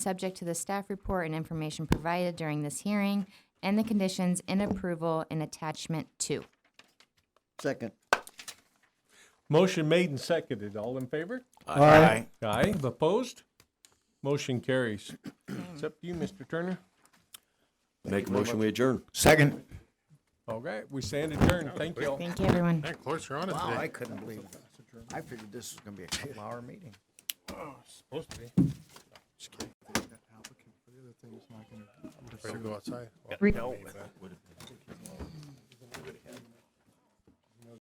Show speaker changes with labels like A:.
A: subject to the staff report and information provided during this hearing and the conditions in approval in attachment two.
B: Second.
C: Motion made and seconded. All in favor?
D: Aye.
C: Aye. Opposed? Motion carries. It's up to you, Mr. Turner.
E: Make a motion, we adjourn.
D: Second.
C: All right, we stand adjourned. Thank you all.
A: Thank you, everyone.
F: Hey, close, you're on it
D: Wow,
F: today.
D: Oh, I couldn't believe it. I figured this was gonna be a couple-hour meeting.
F: Supposed to be. Just kidding.
G: applicant for the other thing is not gonna.
F: Ready to go outside? Well,
A: Re-
F: maybe, but-